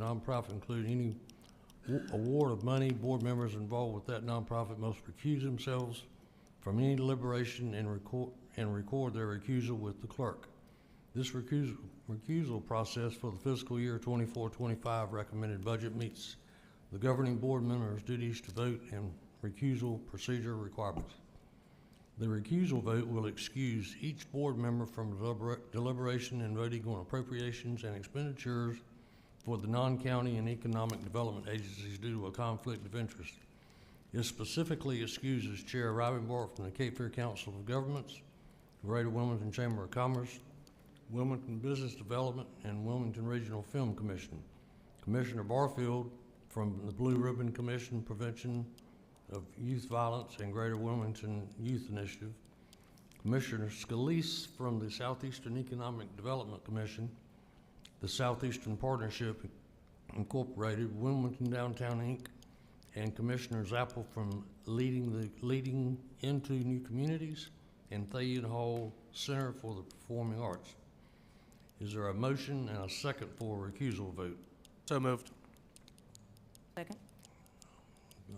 nonprofit include any w- award of money, board members involved with that nonprofit must recuse themselves from any deliberation and record, and record their recusal with the clerk. This recusal, recusal process for the fiscal year 24-25 recommended budget meets the governing board members' duties to vote and recusal procedure requirements. The recusal vote will excuse each board member from deliber- deliberation and voting on appropriations and expenditures for the non-county and economic development agencies due to a conflict of interest. It specifically excuses Chair Rivenborough from the Cape Fear Council of Governments, Greater Wilmington Chamber of Commerce, Wilmington Business Development, and Wilmington Regional Film Commission. Commissioner Barfield from the Blue Ribbon Commission Prevention of Youth Violence and Greater Wilmington Youth Initiative, Commissioner Scalise from the Southeastern Economic Development Commission, the Southeastern Partnership Incorporated, Wilmington Downtown Inc., and Commissioner Zappel from leading the, leading into new communities, and Thayin Hall Center for the Performing Arts. Is there a motion and a second for a recusal vote? So moved. Second.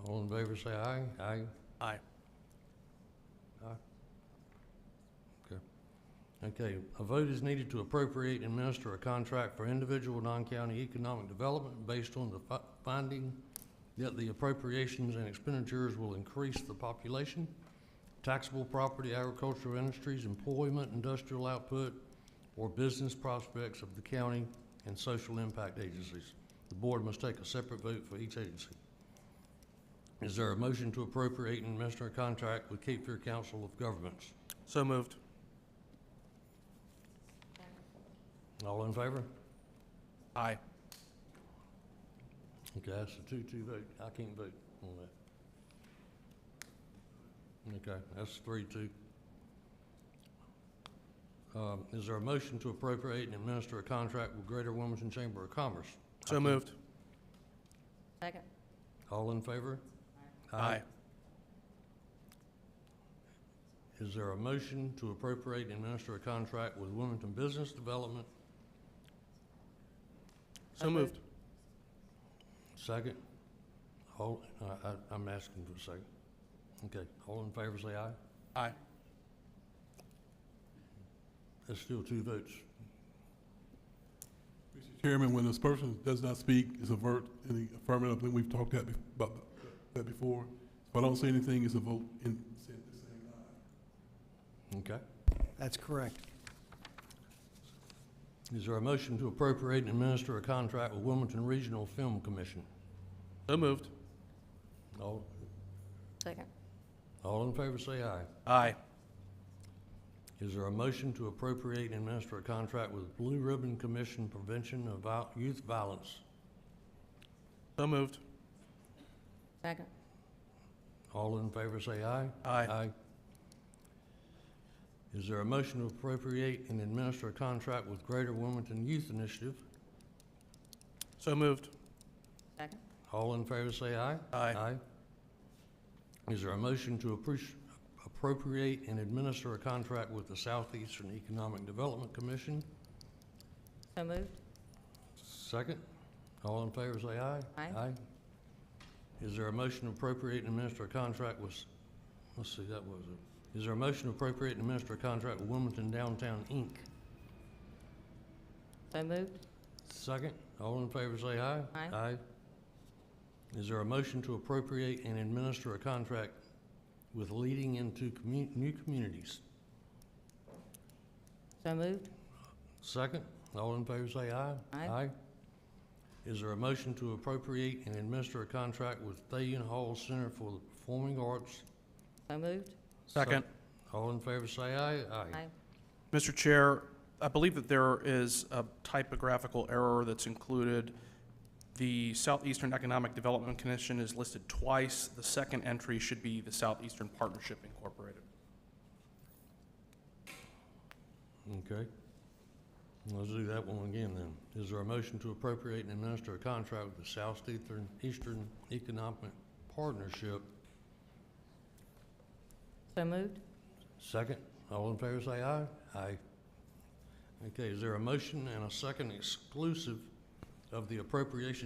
All in favor, say aye. Aye. Aye. Okay, a vote is needed to appropriate and administer a contract for individual non-county economic development based on the fi- finding that the appropriations and expenditures will increase the population, taxable property, agricultural industries, employment, industrial output, or business prospects of the county and social impact agencies. The board must take a separate vote for each agency. Is there a motion to appropriate and administer a contract with Cape Fear Council of Governments? So moved. All in favor? Aye. Okay, that's a two-two vote. I can't vote on that. Okay, that's three-two. Um, is there a motion to appropriate and administer a contract with Greater Wilmington Chamber of Commerce? I So can't- moved. Second. All in favor? Is there a motion to appropriate and administer a contract with Wilmington Business Development? So moved. Second? All, I, I, I'm asking for a second. Okay, all in favor, say aye. Aye. That's still two votes. Mr. Chairman, when this person does not speak, it's a vote in the affirmative, I think we've talked that bef- about that before. If I don't say anything, it's a vote in, Okay. That's correct. Is there a motion to appropriate and administer a contract with Wilmington Regional Film Commission? So moved. All, Second. all in favor, say aye. Aye. Is there a motion to appropriate and administer a contract with Blue Ribbon Commission Prevention of Viol- Youth Violence? So moved. Second. All in favor, say aye. Aye. Is there a motion to appropriate and administer a contract with Greater Wilmington Youth Initiative? So moved. Second. All in favor, say aye. Aye. Is there a motion to approach- appropriate and administer a contract with the Southeastern Economic Development Commission? So moved. Second. All in favor, say aye. Aye. Is there a motion to appropriate and administer a contract with, let's see, that was it. Is there a motion to appropriate and administer a contract with Wilmington Downtown, Inc.? So moved. Second. All in favor, say aye. Aye. Is there a motion to appropriate and administer a contract with Leading Into Commu- New Communities? So moved. Second, all in favor say aye. Aye. Is there a motion to appropriate and administer a contract with Thayin Hall Center for the Performing Arts? So moved. Second. All in favor say aye. Aye. Mr. Chair, I believe that there is a typographical error that's included. The Southeastern Economic Development Commission is listed twice. The second entry should be the Southeastern Partnership Incorporated. Okay. Let's do that one again then. Is there a motion to appropriate and administer a contract with the Southeastern Eastern Economic Partnership? So moved. Second, all in favor say aye. Aye. Okay, is there a motion and a second exclusive of the appropriation